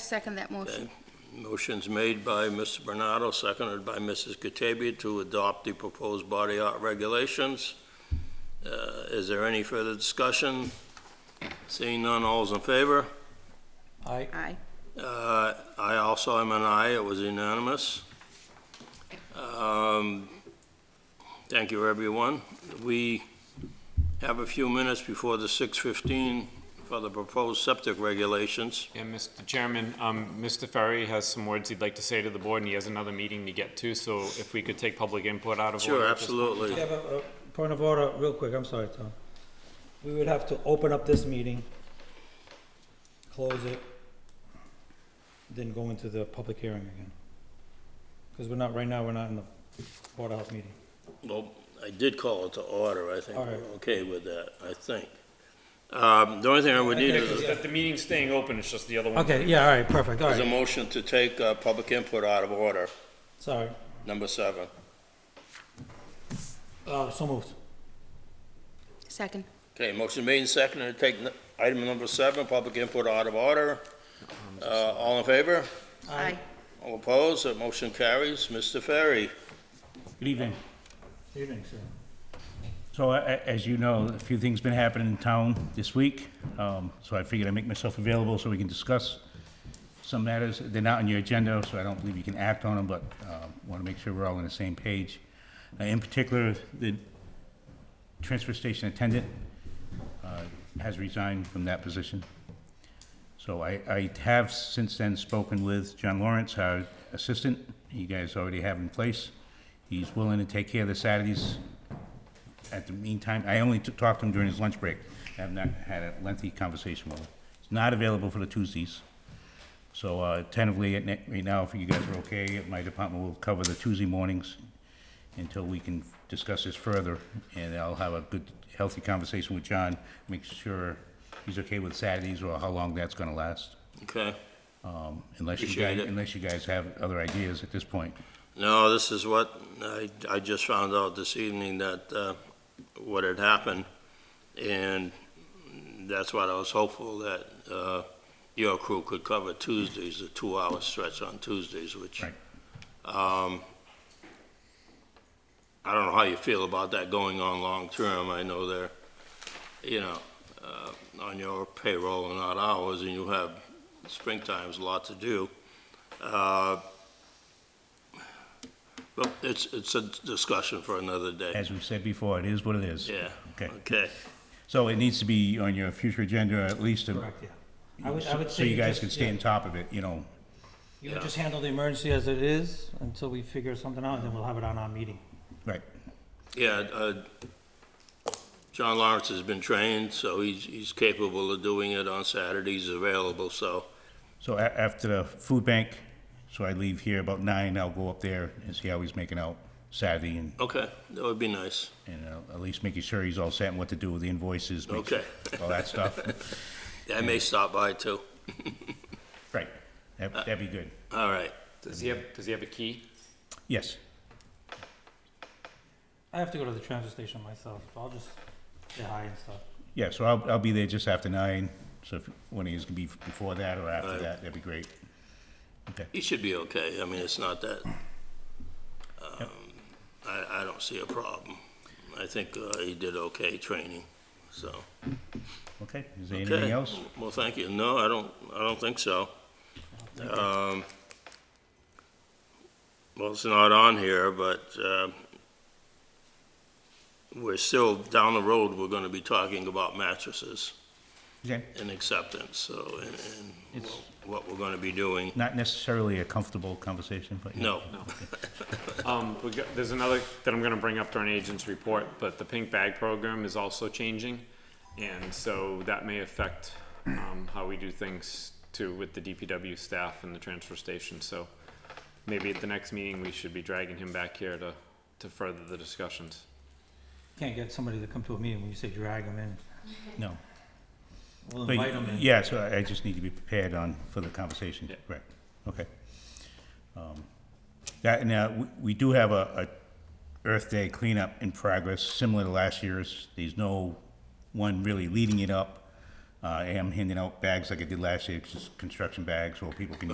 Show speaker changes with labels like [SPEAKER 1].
[SPEAKER 1] second that motion.
[SPEAKER 2] Motion's made by Mr. Bernardo, seconded by Mrs. Katavia to adopt the proposed body art regulations. Uh, Is there any further discussion? Seeing none, all's in favor?
[SPEAKER 3] Aye.
[SPEAKER 1] Aye.
[SPEAKER 2] Uh, I also am an aye, it was unanimous. Um, Thank you, everyone. We have a few minutes before the 6:15 for the proposed septic regulations.
[SPEAKER 4] Yeah, Mr. Chairman, um, Mr. Ferry has some words he'd like to say to the board, and he has another meeting to get to, so if we could take public input out of order.
[SPEAKER 2] Sure,
[SPEAKER 4] at this point.
[SPEAKER 2] absolutely.
[SPEAKER 3] Yeah, but, uh, point of order, real quick, I'm sorry, Tom. We would have to open up this meeting, close it, then go into the public hearing again. Because we're not, right now, we're not in the Board of Health meeting.
[SPEAKER 2] Well, I did call it to order, I think
[SPEAKER 3] All right.
[SPEAKER 2] we're okay with that, I think. Um, The only thing I would need is
[SPEAKER 4] That the meeting's staying open, it's just the other one.
[SPEAKER 3] Okay, yeah, all right, perfect, all
[SPEAKER 2] is a
[SPEAKER 3] right,
[SPEAKER 2] motion to take uh, public input out of order,
[SPEAKER 3] sorry.
[SPEAKER 2] number seven.
[SPEAKER 3] Uh, so moved.
[SPEAKER 1] Second.
[SPEAKER 2] Okay, motion made and seconded to take n- item number seven, public input out of order. Uh, All in favor?
[SPEAKER 1] Aye.
[SPEAKER 2] All opposed? That motion carries. Mr. Ferry?
[SPEAKER 5] Good evening.
[SPEAKER 3] Good evening, sir.
[SPEAKER 5] So a- a- as you know, a few things been happening in town this week, um, so I figured I'd make myself available so we can discuss some matters. They're not on your agenda, so I don't believe you can act on them, but want to make sure we're all on the same page. Uh, In particular, the transfer station attendant uh, has resigned from that position. So I, I have since then spoken with John Lawrence, our assistant, you guys already have in place. He's willing to take care of the Saturdays. At the meantime, I only t- talked to him during his lunch break. I have not had a lengthy conversation with him. He's not available for the Tuesdays. So uh, tentatively, at ne- right now, if you guys are okay, my department will cover the Tuesday mornings until we can discuss this further, and I'll have a good, healthy conversation with John, make sure he's okay with Saturdays or how long that's gonna last,
[SPEAKER 2] Okay.
[SPEAKER 5] um, unless you
[SPEAKER 2] Appreciate
[SPEAKER 5] guys,
[SPEAKER 2] it.
[SPEAKER 5] unless you guys have other ideas at this point.
[SPEAKER 2] No, this is what, I, I just found out this evening that, uh, what had happened, and that's what I was hopeful that, uh, your crew could cover Tuesdays, the two-hour stretch on Tuesdays, which,
[SPEAKER 5] Right.
[SPEAKER 2] um, I don't know how you feel about that going on long-term. I know they're, you know, uh, on your payroll and not ours, and you have springtime's a lot to do. Uh, well, it's, it's a discussion for another day.
[SPEAKER 5] As we've said before, it is what it is.
[SPEAKER 2] Yeah.
[SPEAKER 5] Okay.
[SPEAKER 2] Okay.
[SPEAKER 5] So it needs to be on your future agenda, or at least, a-
[SPEAKER 3] Correct, yeah. I would, I would
[SPEAKER 5] so
[SPEAKER 3] say.
[SPEAKER 5] you guys
[SPEAKER 3] just-
[SPEAKER 5] can stay
[SPEAKER 3] yeah,
[SPEAKER 5] on top of it, you know,
[SPEAKER 3] You would just handle the emergency as it is until we figure something out, and then we'll have it on our meeting.
[SPEAKER 5] right.
[SPEAKER 2] Yeah, uh, John Lawrence has been trained, so he's, he's capable of doing it on Saturdays available, so,
[SPEAKER 5] So a- after the food bank, so I leave here about nine, I'll go up there and see how he's making out Saturday and,
[SPEAKER 2] okay, that would be nice.
[SPEAKER 5] and uh, at least making sure he's all set and what to do with the invoices. make sure-
[SPEAKER 2] Okay.
[SPEAKER 5] All that stuff.
[SPEAKER 2] I may stop by too.
[SPEAKER 5] Right, that, that'd be good,
[SPEAKER 2] All right,
[SPEAKER 4] Does he have, does he have a key?
[SPEAKER 5] yes.
[SPEAKER 3] I have to go to the transfer station myself, so I'll just say hi and stuff.
[SPEAKER 5] Yeah, so I'll, I'll be there just after nine, so if one of you can be before that or after
[SPEAKER 2] Right.
[SPEAKER 5] that, that'd be great.
[SPEAKER 2] he should be okay, I mean, it's not that, um, I, I don't see a problem. I think, uh, he did okay training, so.
[SPEAKER 5] Okay, is there anything
[SPEAKER 2] Okay.
[SPEAKER 5] else?
[SPEAKER 2] Well, thank you, no, I don't, I don't think so. Um, well, it's not on here, but, uh, we're still, down the road, we're gonna be talking about mattresses
[SPEAKER 5] Okay,
[SPEAKER 2] and acceptance, so, and, and
[SPEAKER 5] It's-
[SPEAKER 2] what we're gonna be doing.
[SPEAKER 5] not necessarily a comfortable conversation, but. yeah.
[SPEAKER 2] No,
[SPEAKER 4] Um, we got, there's another that I'm gonna bring up during agent's report, but the pink bag program is also changing. And so that may affect, um, how we do things too with the DPW staff and the transfer station, so maybe at the next meeting, we should be dragging him back here to, to further the discussions.
[SPEAKER 3] Can't get somebody to come to a meeting when you say drag them in.
[SPEAKER 5] No.
[SPEAKER 3] We'll
[SPEAKER 5] But,
[SPEAKER 3] invite them in.
[SPEAKER 5] yeah, so I- I just need to be prepared on, for the conversation,
[SPEAKER 4] Yeah.
[SPEAKER 5] correct, okay. Um, That, now, we, we do have a, a Earth Day cleanup in progress, similar to last year's, there's no one really leading it up. Uh, I am handing out bags like I did last year, just construction bags, where people can